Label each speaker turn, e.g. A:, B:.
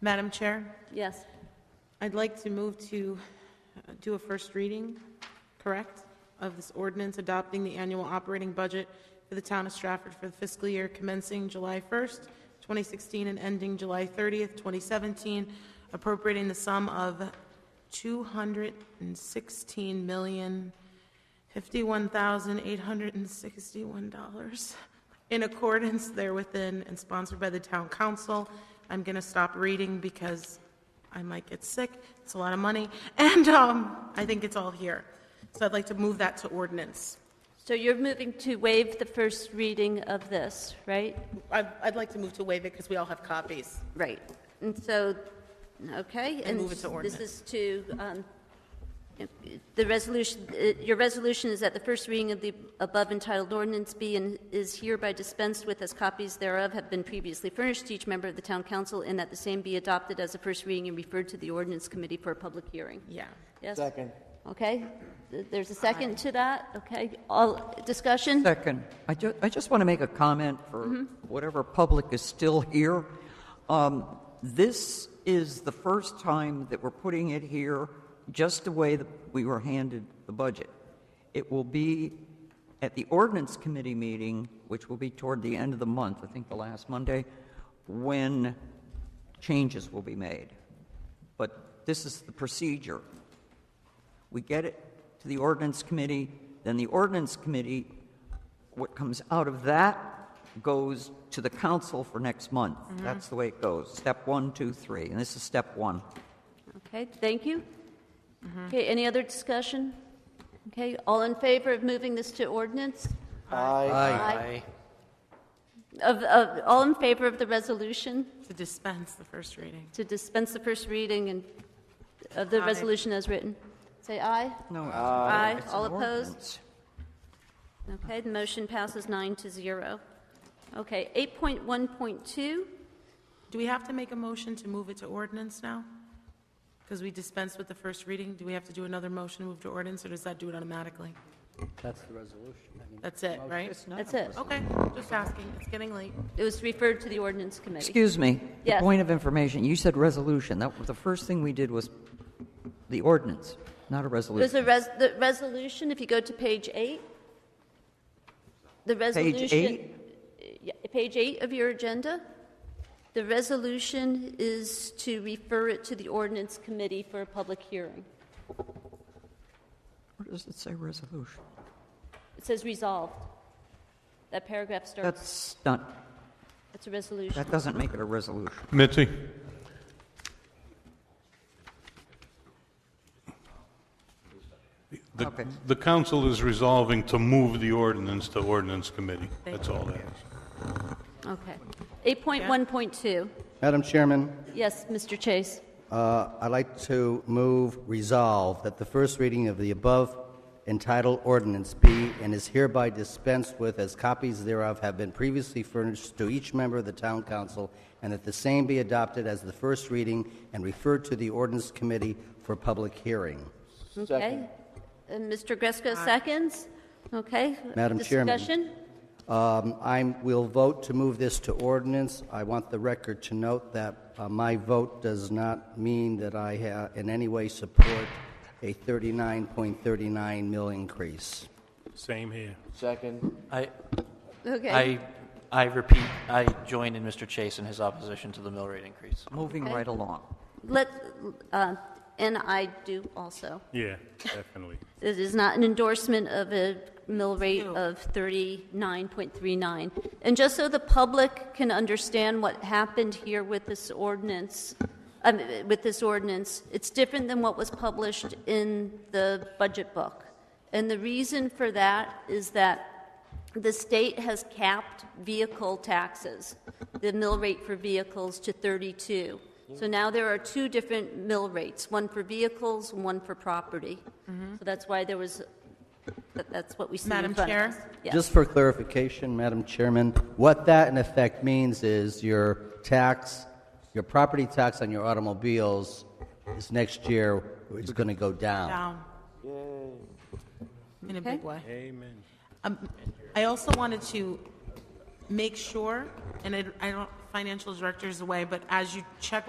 A: Madam Chair,
B: Yes.
A: I'd like to move to uh, do a first reading, correct, of this ordinance adopting the annual operating budget for the town of Stratford for the fiscal year commencing July 1st, 2016, and ending July 30th, 2017, appropriating the sum of $216,051,861 in accordance therewithin and sponsored by the town council. I'm going to stop reading because I might get sick. It's a lot of money. And um, I think it's all here. So I'd like to move that to ordinance.
B: So you're moving to waive the first reading of this, right?
A: I'd, I'd like to move to waive it because we all have copies.
B: Right. And so, okay.
A: move it to ordinance.
B: This is to, um, the resolution, uh, your resolution is that the first reading of the above entitled ordinance be and is hereby dispensed with as copies thereof have been previously furnished to each member of the town council and that the same be adopted as a first reading and referred to the ordinance committee for a public hearing.
A: Yeah.
B: Yes?
C: Second.
B: Okay, Th- there's a second to that, okay? All, discussion?
D: Second, I ju, I just want to make a comment for whatever public is still here. Um, This is the first time that we're putting it here just the way that we were handed the budget. It will be at the ordinance committee meeting, which will be toward the end of the month, I think the last Monday, when changes will be made. But this is the procedure. We get it to the ordinance committee, then the ordinance committee, what comes out of that goes to the council for next month. That's the way it goes. Step one, two, three, and this is step one.
B: Okay, thank you. Okay, any other discussion? Okay, all in favor of moving this to ordinance?
C: Aye.
B: Aye. Of, of, all in favor of the resolution
A: To dispense the first reading.
B: to dispense the first reading and, of the
A: Aye.
B: resolution as written? Say aye.
D: No, it's-
B: Aye.
D: it's an
B: All opposed?
D: ordinance.
B: Okay, the motion passes nine to zero. Okay, 8.1.2,
A: Do we have to make a motion to move it to ordinance now? Because we dispensed with the first reading. Do we have to do another motion, to move to ordinance, or does that do it automatically?
C: That's the resolution. I mean,
A: That's it, right?
D: It's not
B: that's
D: a-
B: it.
A: Okay, just asking. It's getting late.
B: It was referred to the ordinance committee.
D: Excuse me. The
B: Yes.
D: Point of information, you said resolution. That, was the first thing we did was the ordinance, not a
B: There's
D: resolution.
B: a res, the resolution, if you go to page eight, the resolution.
D: eight?
B: Yeah, Page eight of your agenda. The resolution is to refer it to the ordinance committee for a public hearing.
D: Where does it say resolution?
B: It says resolved. That paragraph starts,
D: That's not,
B: that's a resolution.
D: that doesn't make it a resolution.
E: Mitzi, the,
D: Okay.
E: the council is resolving to move the ordinance to ordinance committee. That's all that is.
B: Okay. Eight point one point two.
C: Madam Chairman,
B: Yes, Mr. Chase.
C: uh, I'd like to move resolve that the first reading of the above entitled ordinance be and is hereby dispensed with as copies thereof have been previously furnished to each member of the town council, and that the same be adopted as the first reading and referred to the ordinance committee for public hearing.
B: Okay. And Mr. Gresko seconds. Okay.
C: Madam Chairman.
B: Discussion?
C: Um, I will vote to move this to ordinance. I want the record to note that uh, my vote does not mean that I ha- in any way support a 39.39 mill increase.
E: Same here.
F: Second. I,
B: Okay.
F: I, I repeat, I join in Mr. Chase in his opposition to the mill rate increase.
D: Moving
B: Okay.
D: right along.
B: Let, uh, and I do also.
E: Yeah, definitely.
B: It is not an endorsement of a mill rate
A: No.
B: of 39.39. And just so the public can understand what happened here with this ordinance, um, with this ordinance, it's different than what was published in the budget book. And the reason for that is that the state has capped vehicle taxes, the mill rate for vehicles to 32. So now there are two different mill rates, one for vehicles, one for property. So that's why there was, that- that's what we see in
A: Madam
B: front of
A: Chair?
B: us. Yes.
C: Just for clarification, Madam Chairman, what that in effect means is your tax, your property tax on your automobiles is next year is going to go down.
A: Down. In a
B: Okay.
A: big way. Amen. I also wanted to make sure, and I I don't, financial director's away, but as you check